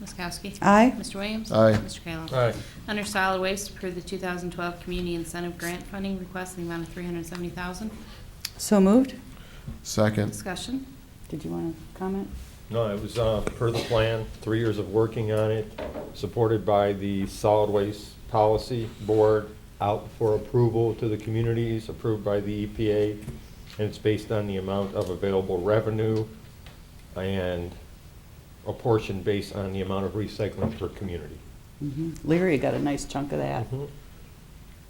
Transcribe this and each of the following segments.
Ms. Kowski? Aye. Mr. Williams? Aye. Mr. Kayla? Aye. Under solid waste, approve the 2012 community incentive grant funding request in the amount of 370000 So moved. Second. Discussion. Did you want to comment? No, it was uh, per the plan, three years of working on it, supported by the Solid Waste Policy Board, out for approval to the communities, approved by the EPA, and it's based on the amount of available revenue and a portion based on the amount of recycling per community. Mhm. Mm-hmm. Leary got a nice chunk of that, Mhm.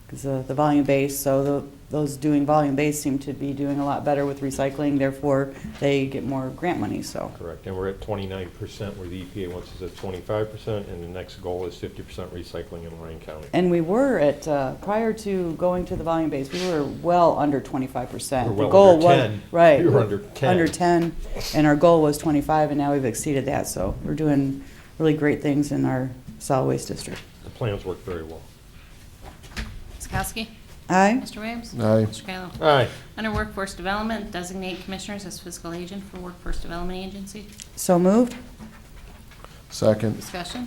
because the volume base, so tho- those doing volume base seem to be doing a lot better with recycling, therefore they get more grant money, so. Correct, and we're at twenty-nine percent, where the EPA wants us at twenty-five percent, and the next goal is fifty percent recycling in Lorraine County. And we were at, uh, prior to going to the volume base, we were well under 25%. We're The well goal under was- 10. Right. We were under 10. Under 10, and our goal was 25, and now we've exceeded that, so we're doing really great things in our solid waste district. The plans work very well. Ms. Kowski? Aye? Mr. Williams? Aye. Mr. Kayla? All right, Under Workforce Development, designate commissioners as fiscal agent for Workforce Development Agency. So moved? Second. Discussion.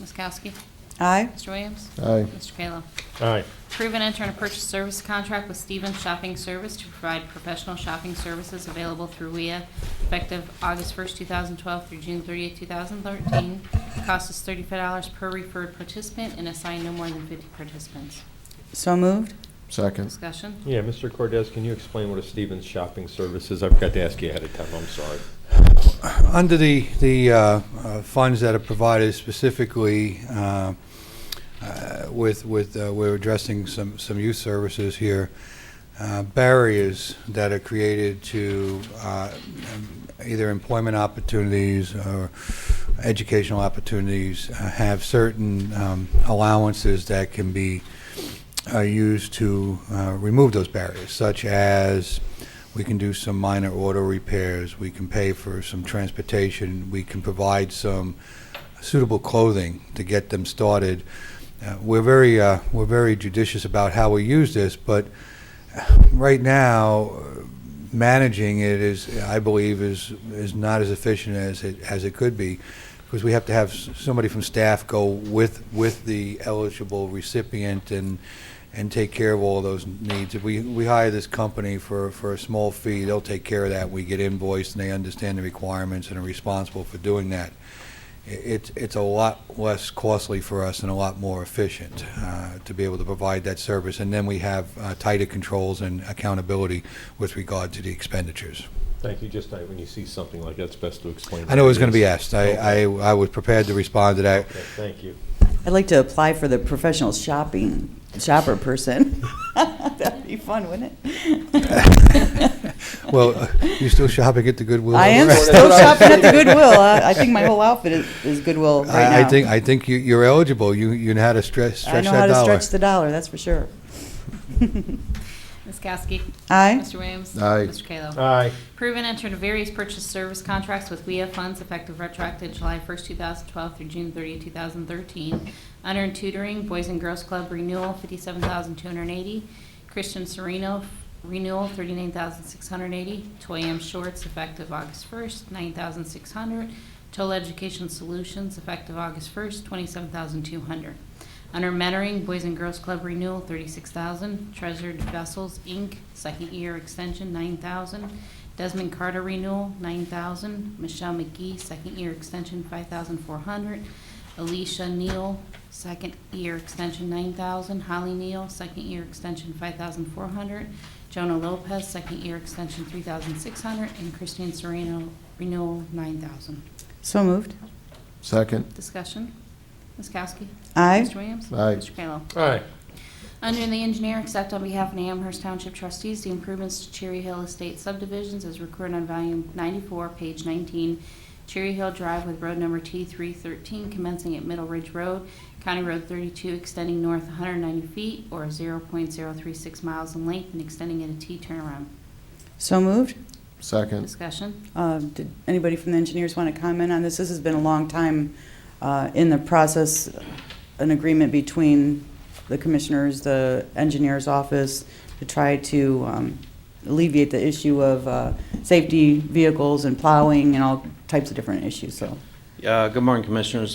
Ms. Kowski? Aye? Mr. Williams? Aye. Mr. Kayla? all right. Approve and enter a purchase service contract with Stevens Shopping Service to provide professional shopping services available through WIA effective August 1st, 2012 through June 30th, 2013. Cost is $35 per referred participant and assign no more than 50 participants. So moved? Second. Discussion. Yeah, Mr. Cordez, can you explain what a Stevens Shopping Service is? I forgot to ask you ahead of time, I'm sorry. Under the, the uh, uh, funds that are provided specifically uh, uh, with, with, uh, we're addressing some, some youth services here, uh, barriers that are created to uh, um, either employment opportunities or educational opportunities uh, have certain um, allowances that can be uh, used to uh, remove those barriers, such as we can do some minor auto repairs, we can pay for some transportation, we can provide some suitable clothing to get them started. Uh, We're very, uh, we're very judicious about how we use this, but right now, uh, managing it is, I believe, is, is not as efficient as it, as it could be, because we have to have s- somebody from staff go with, with the eligible recipient and, and take care of all those needs. If we, we hire this company for, for a small fee, they'll take care of that. We get invoiced, and they understand the requirements and are responsible for doing that. I- It's, it's a lot less costly for us and a lot more efficient uh, to be able to provide that service. And then we have uh, tighter controls and accountability with regard to the expenditures. Thank you, just like when you see something like that, it's best to explain. I know it was going to be what asked. I, I I was prepared to respond to it is. that. Okay, Thank you. I'd like to apply for the professional shopping, shopper person. That'd be fun, wouldn't it? Well, uh, you still shopping at the Goodwill? I am over there? still shopping at the Goodwill. I I think my whole outfit is- is Goodwill right now. I, I think, I think you, you're eligible. You, you know how to stretch, I stretch know that how to dollar. stretch the dollar, that's for sure. Ms. Kowski? Aye? Mr. Williams? Aye. Mr. Kayla? All right, Proven entered various purchase service contracts with WEA funds effective retroactive July 1st, 2012 through June 30th, 2013. Under and tutoring, Boys and Girls Club renewal, 57280 Christian Sereno renewal, 39680 Toy M Shorts effective August 1st, 9600 Total Education Solutions effective August 1st, 27200 under Mentoring, Boys and Girls Club Renewal, thirty-six thousand. Treasured Vessels, Inc., Second Year Extension, nine thousand. Desmond Carter Renewal, nine thousand. Michelle McGee, Second Year Extension, five thousand four hundred. Alicia Neal, Second Year Extension, nine thousand. Holly Neal, Second Year Extension, five thousand four hundred. Jonah Lopez, Second Year Extension, three thousand six hundred. And Christine Serrano, Renewal, nine thousand. So moved. Second. Discussion. Ms. Kowski? Aye? Mr. Williams? Aye. Mr. Kayla? all right, Under the engineer, accept on behalf of the Amherst Township trustees the improvements to Cherry Hill Estate subdivisions as recorded on volume 94, page 19, Cherry Hill Drive with road number T313 commencing at Middle Ridge Road, County Road 32 extending north 190 feet or 0.036 miles in length and extending at a T turnaround. So moved. Second. Discussion. Uh, Did anybody from the engineers want to comment on this? This has been a long time uh, in the process, an agreement between the commissioners, the engineer's office, to try to um, alleviate the issue of uh, safety vehicles and plowing and all types of different issues, so. Yeah, Uh, good morning, Commissioners.